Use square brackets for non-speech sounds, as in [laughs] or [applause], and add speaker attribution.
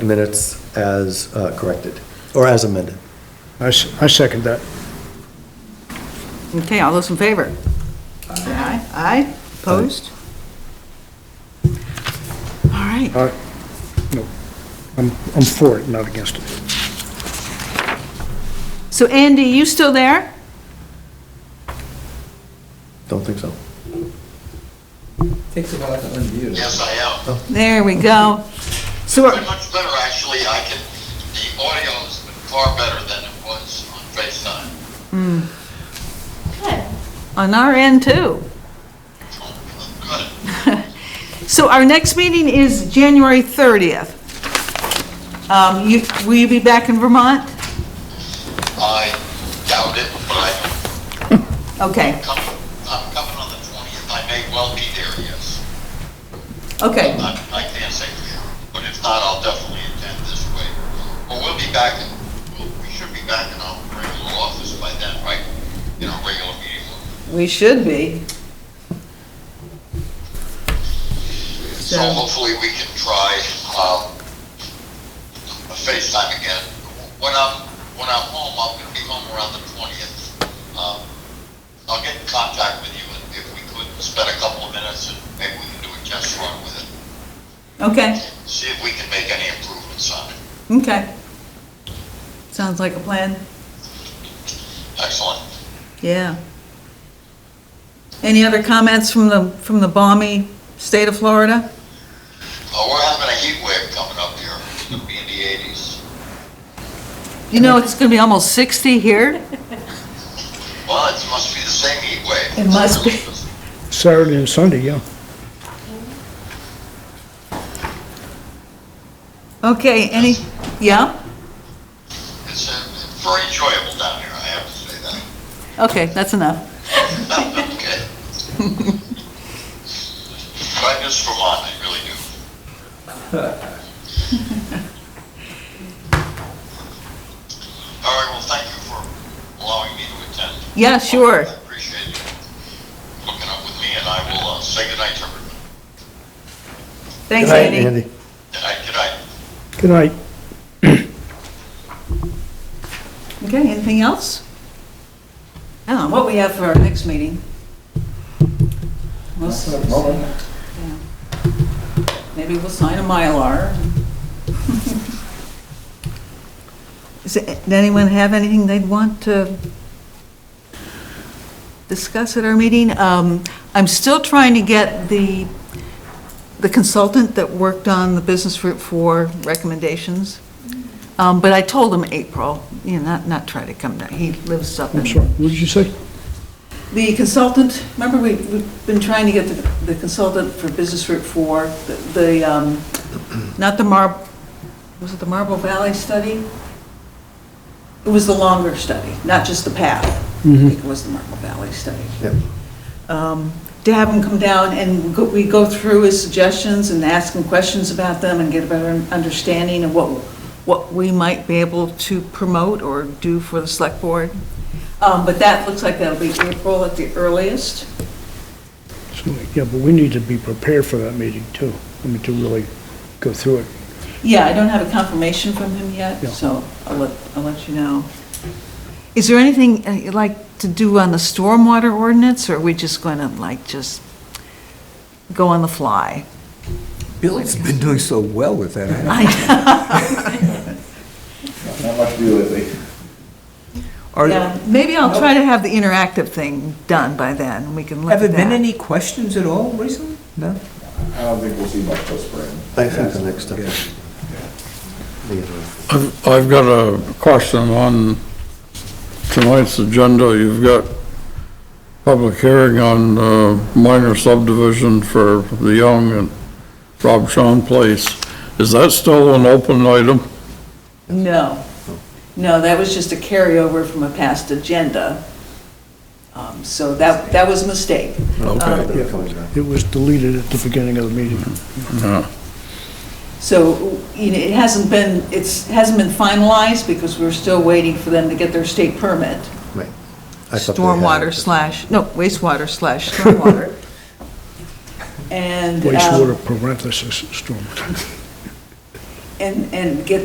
Speaker 1: minutes as uh, corrected, or as amended.
Speaker 2: I s- I second that.
Speaker 3: Okay, all those in favor? Aye. Aye, opposed? All right,
Speaker 2: I- No, I'm I'm for it, not against it.
Speaker 3: so Andy, you still there?
Speaker 1: Don't think so.
Speaker 4: Takes a while to unmute.
Speaker 5: Yes, I am.
Speaker 3: There we go. So,
Speaker 5: Very
Speaker 3: we're-
Speaker 5: Much better, actually. I can, the audio has been far better than it was on FaceTime.
Speaker 3: on our end too.
Speaker 5: Good.
Speaker 3: So our next meeting is January 30th. Um, you, will you be back in Vermont?
Speaker 5: I doubt it, but I-
Speaker 3: Okay,
Speaker 5: I'm coming, I'm coming on the 20th. I may well be there, yes.
Speaker 3: okay,
Speaker 5: I I can't say for sure, but if not, I'll definitely attend this way. But we'll be back, in- we'll- we should be back in our regular office by then, right? In our regular meeting.
Speaker 3: we should be. So,
Speaker 5: So hopefully we can try um, a FaceTime again. When I'm, when I'm home, I'm gonna be home around the 20th. Um, I'll get in contact with you and if we could spend a couple of minutes and maybe we can do a test run with it.
Speaker 3: okay,
Speaker 5: See if we can make any improvements on it.
Speaker 3: okay. Sounds like a plan.
Speaker 5: Excellent.
Speaker 3: Yeah. Any other comments from the, from the balmy state of Florida?
Speaker 5: Uh, We're having a heat wave coming up here. It's gonna be in the 80s.
Speaker 3: You know, it's gonna be almost 60 here.
Speaker 5: Well, it must be the same heat wave.
Speaker 3: It must be.
Speaker 2: Saturday and Sunday, yeah.
Speaker 3: Okay, any, yeah?
Speaker 5: It's uh, very enjoyable down here, I have to say that.
Speaker 3: Okay, that's enough.
Speaker 5: Okay. But I miss Vermont, I really do. All right, well, thank you for allowing me to attend.
Speaker 3: Yeah, sure.
Speaker 5: I appreciate you hooking up with me, and I will uh, say goodnight to everyone.
Speaker 3: Thanks,
Speaker 1: Good night,
Speaker 3: Andy.
Speaker 5: Good night, good night.
Speaker 2: Good night.
Speaker 3: Okay, anything else? Now, Oh, what we have for our next meeting? We'll s- Maybe we'll sign a Mylar. [laughs] Is it, did anyone have anything they'd want to discuss at our meeting? Um, I'm still trying to get the, the consultant that worked on the business route for recommendations. Um, but I told him April, you know, not, not try to come down, he lives up in.
Speaker 2: I'm sorry, what did you say?
Speaker 3: The consultant, remember, we- we've been trying to get the the consultant for Business Route 4, the- the, um, not the Mar, was it the Marble Valley study? It was the longer study, not just the path. I think It was the Marble Valley study.
Speaker 1: Yep.
Speaker 3: Um, To have him come down and go- we go through his suggestions and ask him questions about them and get a better understanding of what, what we might be able to promote or do for the select board. Um, But that looks like that'll be April at the earliest.
Speaker 2: So, Yeah, but we need to be prepared for that meeting, too. I mean, to really go through it.
Speaker 3: Yeah, I don't have a confirmation from him yet,
Speaker 2: Yeah.
Speaker 3: so I'll let, I'll let you know. Is there anything uh, you'd like to do on the stormwater ordinance, or are we just going to like just go on the fly? [laughs]
Speaker 4: Bill's been doing so well with that.
Speaker 3: I-
Speaker 6: Not much to do lately.
Speaker 4: Are,
Speaker 3: yeah,
Speaker 4: have
Speaker 3: Maybe I'll try to have the interactive thing done by then, and we can look at
Speaker 4: there
Speaker 3: that.
Speaker 4: been any questions at all recently? No?
Speaker 6: I don't think we'll see much till spring.
Speaker 1: I think the next step
Speaker 4: Yeah.
Speaker 1: is the interim.
Speaker 7: I've I've got a question on tonight's agenda. You've got public hearing on uh, minor subdivision for the Young and Rob Shawn Place. Is that still an open item?
Speaker 3: No, no, that was just a carryover from a past agenda. Um, So that, that was a mistake. Um,
Speaker 7: Okay.
Speaker 1: They're coming back.
Speaker 2: It was deleted at the beginning of the meeting.
Speaker 7: Yeah.
Speaker 3: So, you know, it hasn't been, it's, hasn't been finalized because we're still waiting for them to get their state permit.
Speaker 1: Right. I thought they had
Speaker 3: Stormwater
Speaker 1: it.
Speaker 3: slash, no, wastewater slash stormwater. [laughs] And, um,
Speaker 2: Wastewater parenthesis storm.
Speaker 3: and, and get